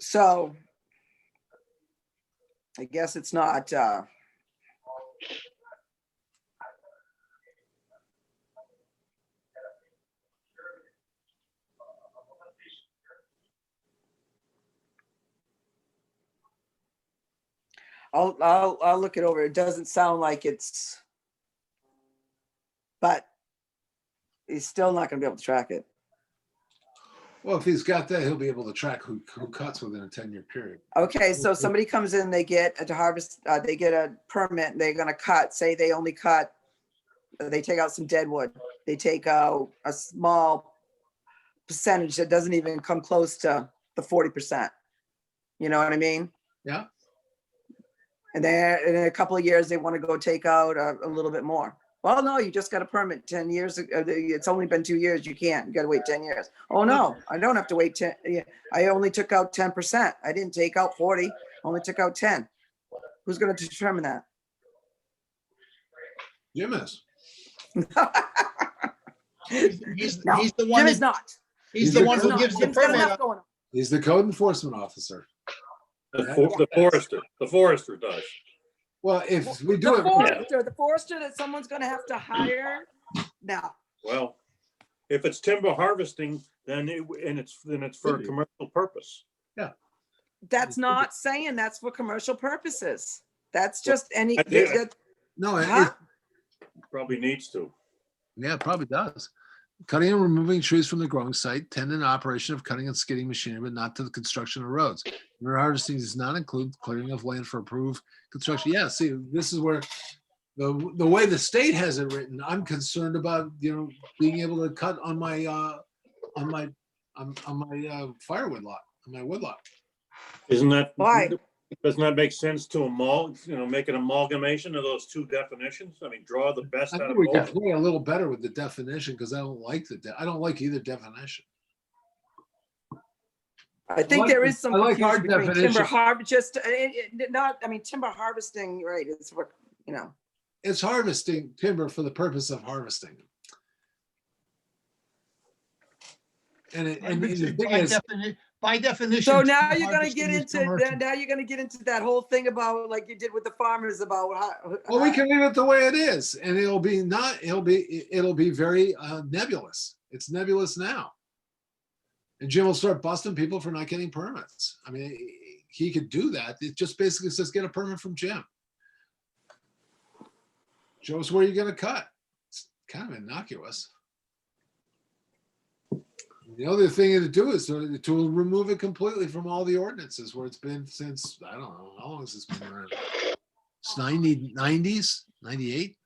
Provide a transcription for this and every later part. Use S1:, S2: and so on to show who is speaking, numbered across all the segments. S1: So I guess it's not, uh, I'll, I'll, I'll look it over. It doesn't sound like it's, but he's still not gonna be able to track it.
S2: Well, if he's got that, he'll be able to track who, who cuts within a ten-year period.
S1: Okay, so somebody comes in, they get a harvest, uh, they get a permit, and they're gonna cut, say they only cut, they take out some dead wood, they take out a small percentage that doesn't even come close to the forty percent. You know what I mean?
S2: Yeah.
S1: And then in a couple of years, they wanna go take out a, a little bit more. Well, no, you just got a permit ten years, ag- uh, the- it's only been two years, you can't, you gotta wait ten years. Oh, no, I don't have to wait ten, yeah, I only took out ten percent. I didn't take out forty, only took out ten. Who's gonna determine that?
S2: Jim is.
S3: He's he's-
S1: No,
S3: he's the one,
S1: Jim is
S3: that-
S1: not.
S3: he's the one
S1: Jim's
S3: who
S1: not.
S3: gives the
S1: Jim's got
S3: permit.
S1: enough going on.
S2: He's the code enforcement officer.
S4: The for- the forester, the forester does.
S2: Well, if we do
S1: The
S2: it,
S1: forester, the forester that someone's gonna have to hire now.
S4: Well, if it's timber harvesting, then it, and it's, then it's for a commercial purpose.
S1: That's not saying that's for commercial purposes. That's just any,
S4: I did.
S1: that-
S2: no, it-
S1: Huh?
S4: Probably needs to.
S2: yeah, it probably does. Cutting and removing trees from the growing site, tending to operation of cutting and skidding machinery, but not to the construction of roads. Timber harvesting does not include clearing of land for approved construction. Yeah, see, this is where the, the way the state has it written, I'm concerned about, you know, being able to cut on my, uh, on my, on, on my, uh, firewood lot, on my wood lot.
S4: Isn't that?
S1: Why?
S4: Doesn't that make sense to amal, you know, make an amalgamation of those two definitions? I mean, draw the best
S2: I
S4: out of
S2: think we can
S4: both.
S2: play a little better with the definition because I don't like the, de- I don't like either definition.
S1: I
S2: I
S1: think there is some
S2: I like our
S1: confusion between timber
S2: definition.
S1: harvest, just, uh, it, it, not, I mean, timber harvesting, right, is what, you know.
S2: It's harvesting timber for the purpose of harvesting. And it, and the thing
S3: By
S2: is,
S3: defini- by definition.
S1: So now
S3: timber
S1: you're gonna
S3: harvesting
S1: get
S3: is
S1: into,
S3: commercial.
S1: now you're gonna get into that whole thing about, like you did with the farmers about how.
S2: well, we can leave it the way it is and it'll be not, it'll be, it'll be very uh, nebulous. It's nebulous now. And Jim will start busting people for not getting permits. I mean, he could do that. It just basically says get a permit from Jim. Show us where you're gonna cut. It's kind of innocuous. The other thing to do is to to remove it completely from all the ordinances where it's been since, I don't know, how long has this been around? It's ninety, nineties, ninety-eight?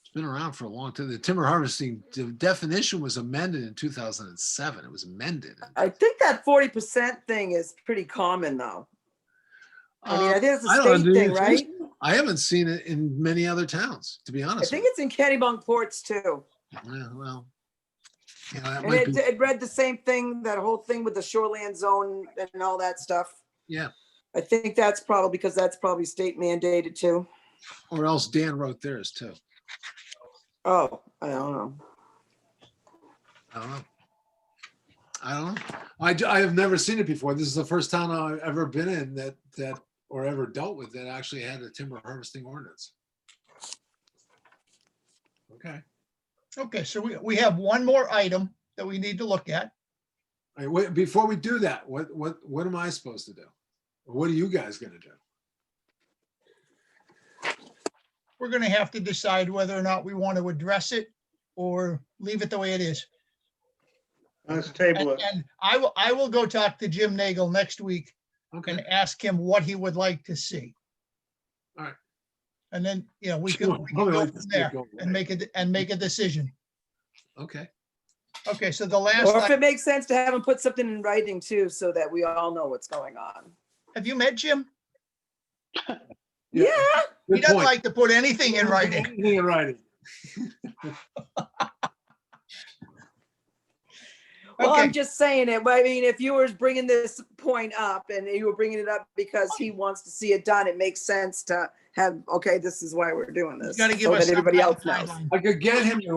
S2: It's been around for a long time. The timber harvesting de- definition was amended in two thousand and seven. It was amended.
S1: I think that forty percent thing is pretty common though. I mean, I
S2: Uh,
S1: think it's
S2: I
S1: a
S2: don't know,
S1: state
S2: do
S1: thing,
S2: you-
S1: right?
S2: I haven't seen it in many other towns, to be
S1: I
S2: honest. with
S1: think it's in Kennybunk ports too.
S2: you. Yeah, Well, you know, that
S1: And
S2: might
S1: it,
S2: be,
S1: it read the same thing, that whole thing with the shoreland zone and all that stuff.
S2: Yeah.
S1: I think that's probably, because that's probably state mandated too.
S2: or else Dan wrote theirs too.
S1: Oh, I don't know.
S2: I don't know. I don't know. I, ju- I have never seen it before. This is the first town I've ever been in that, that, or ever dealt with that actually had a timber harvesting ordinance. Okay.
S3: Okay, so we, we have one more item that we need to look at.
S2: All right, wait, before we do that, what, what, what am I supposed to do? What are you guys gonna do?
S3: We're gonna have to decide whether or not we want to address it or leave it the way it is.
S5: Let's
S3: And
S5: table it.
S3: and I will, I will go talk to Jim Nagel next week
S2: Okay,
S3: and ask him what he would like to see.
S2: All right.
S3: And then, you know, we can
S2: Sure,
S3: we can
S2: probably
S3: go
S2: like
S3: from
S2: this to
S3: there
S2: go
S3: and
S2: away.
S3: make it, and make a decision.
S2: okay,
S3: Okay, so the last,
S1: Or if
S3: i-
S1: it makes sense to have them put something in writing too, so that we all know what's going on.
S3: have you met Jim?
S2: Yeah.
S1: Yeah,
S3: He
S2: good
S3: doesn't
S2: point.
S3: like to put anything in writing.
S2: Anything in writing.
S1: well, I'm
S3: Okay,
S1: just saying it, but I mean, if you were bringing this point up and you were bringing it up because he wants to see it done, it makes sense to have, okay, this is why we're doing
S3: you
S1: this.
S3: gotta give
S1: so
S3: us
S1: that
S3: some
S1: everybody
S3: kind of
S1: else knows.
S3: guideline.
S2: I could get him to